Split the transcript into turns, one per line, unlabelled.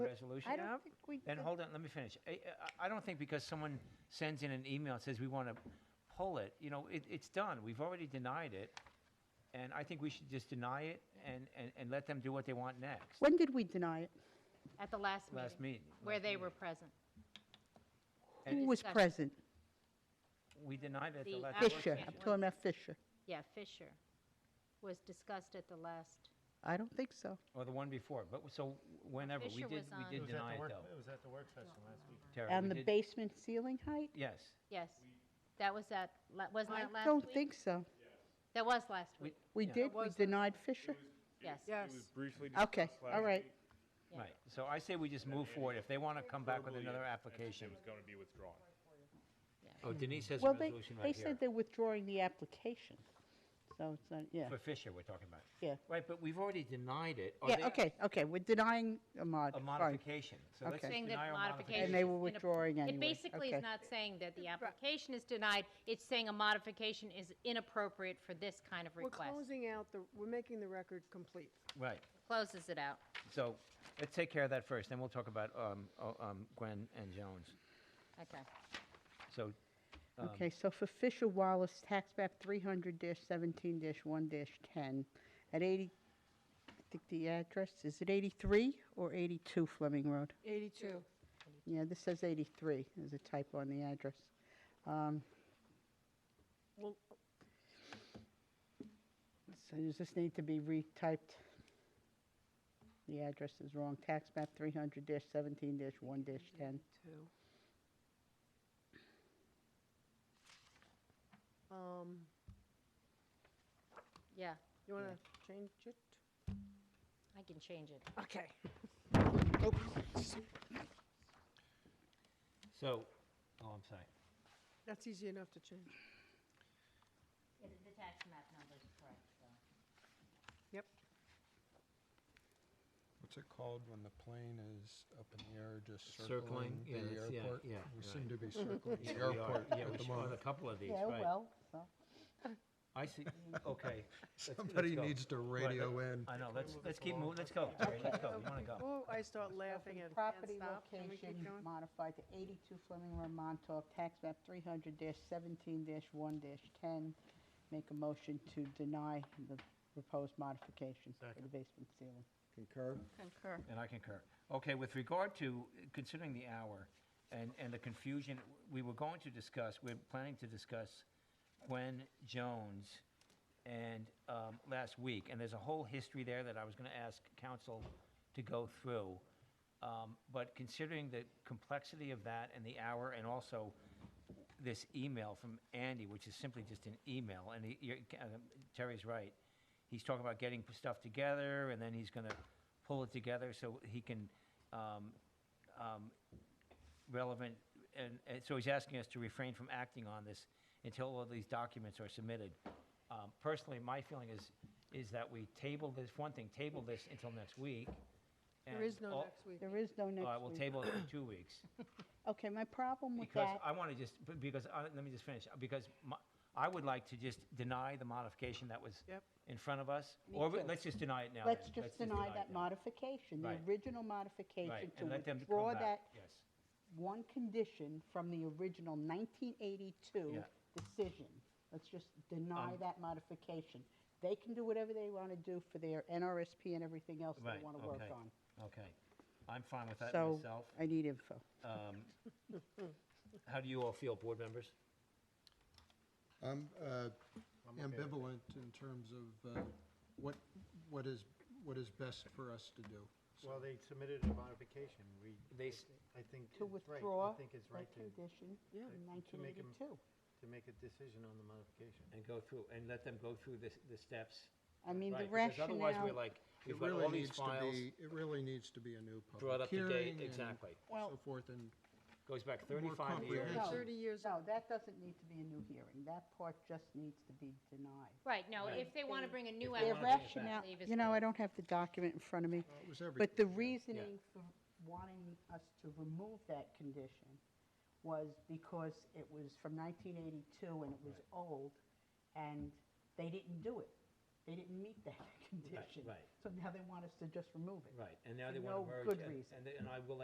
resolution?
I don't think we.
And
did-
hold on, let me finish. I, I- I don't think because someone sends in an email and says, we want to pull it, you know, it, it's done. We've already denied it. And I think we should just deny it and, and, and let them do what they want next.
When did we deny it?
At the last
Last meeting.
meeting, where they were present.
Who
And
was
discussion.
present?
We denied it at the
The
last.
work
Fisher. I'm
session.
talking about Fisher.
Yeah, Fisher was discussed at the last,
I don't think so.
Or the one before, but so whenever, we
Fisher
did,
was
we
on- It
did
was at the
deny it
work-
though.
It was at the work session last week.
Terry, we
And the
did-
basement ceiling height?
Yes,
yes. That was at, la- wasn't
I
that last week?
don't think so.
That was last
We-
week,
We
Yeah.
did, we denied Fisher?
yes.
It was
Yes.
briefly discussed
Okay,
last
all right.
week.
Yeah.
right. So I say we just move forward. If they want to come back with
Verbally,
another
it-
application.
It was going to be withdrawn.
Oh, Denise has a
Well, they,
resolution
they
right here.
said they're withdrawing the application. So it's not, yeah,
For Fisher, we're talking about.
yeah.
Right, but we've already denied it. Are they-
Yeah, okay, okay, we're denying a
A
mod, fine.
modification. So let's
Okay.
just
Saying that
deny our
modification.
And they
is
were
in a-
withdrawing anyway.
It basically
Okay.
is not saying that the application is denied, it's saying a modification is inappropriate for this kind of
We're
request.
closing out the, we're making the record complete.
Right.
Closes it out.
So let's take care of that first, then we'll talk about um, uh, um, Gwen and Jones.
Okay.
So, Um,
Okay, so for Fisher Wallace, tax map three hundred seventeen one ten, at eighty, I think the address, is it eighty-three or eighty-two Fleming Road?
82.
Yeah, this says eighty-three, there's a typo on the address. Um,
Well,
So does this need to be retyped? The address is wrong, tax map three hundred seventeen one ten.
82. Um,
Yeah,
you want to change it?
I can change it.
Okay.
so, oh, I'm sorry.
That's easy enough to change.
The tax map number is correct, though.
Yep.
What's it called when the plane is up in the air, just
Circling,
circling
yeah,
the
that's- yeah,
airport?
yeah,
We
right.
seem to be circling
Yeah,
the
we are.
airport
Yeah,
at
we
the
should on a
moment.
couple of these,
Yeah, oh,
right.
well, so.
I see, okay. Let's- let's
Somebody
go.
needs to
Right,
radio
let-
in.
I know, let's, let's keep moving, let's go, Terry, let's go, you want to go.
Oh, I start laughing and can't
Property
stop. Can we keep
location
going?
modified to 82 Fleming Road, Montauk, tax map 300-17-1-10. Make a motion to deny the proposed modification for the basement ceiling.
Concur?
Concur.
And I concur. Okay, with regard to, uh, considering the hour and, and the confusion, we were going to discuss, we're planning to discuss Gwen Jones and, um, last week, and there's a whole history there that I was gonna ask council to go through. Um, but considering the complexity of that and the hour, and also this email from Andy, which is simply just an email, and he, you're, uh, Terry's right. He's talking about getting stuff together, and then he's gonna pull it together so he can, um, um, relevant, and, and so he's asking us to refrain from acting on this until all these documents are submitted. Um, personally, my feeling is, is that we table this, one thing, table this until next week.
There
and
is no
all-
next week.
There is no
All right,
next
we'll
week.
table it for two weeks.
Okay, my problem with
Because
that,
I want to just, b- because, I- let me just finish, because my- I would like to just deny the modification that was
Yep.
in front of us.
Me
Or we-
too.
let's just deny it now.
let's
then.
just deny
it
that
now.
modification, the
Right.
original
Right,
modification, to
and let them come
withdraw
back.
that
Yes,
one condition from the original 1982
Yeah.
decision. Let's just deny
Um,
that modification. They can do whatever they want to do for their NRSP and everything else they
right,
want to work
okay,
on.
okay. I'm fine with that
So
myself. Um,
I need info.
How do you all feel, board members?
I'm uh,
I'm okay with
ambivalent in terms of uh, what, what is, what is best for us to do.
it. Well, they submitted a modification. We,
They s-
I think.
To
it's right.
withdraw
I think it's right
that
to,
condition
Yeah.
in
To make 'em-
1982.
to make a decision on the modification.
And go through, and let them go through the, the steps.
I mean, the
Right, because Otherwise, we're
rationale,
like,
It
we've got all
really
these
needs to
files
be, it really needs to be a new public hearing.
brought up to date,
and
exactly.
So forth, and
Goes back 35 years.
comprehensive.
30 years.
no, that doesn't need to be a new hearing. That part just needs to be denied.
Right, no,
Right.
if they want to bring a new
they
Their
wanna bring it
application, I
rationale,
believe is
you know, I
correct.
don't have the document in front of me.
uh, it was
But the
everything.
reasoning for wanting us to remove that condition was because it was from 1982 and it was old, and they didn't do it. They didn't meet that condition.
right.
So now they want us to just remove it.
Right, and now
For
they want
no
to merge.
good
and-
reason.
and they- And I will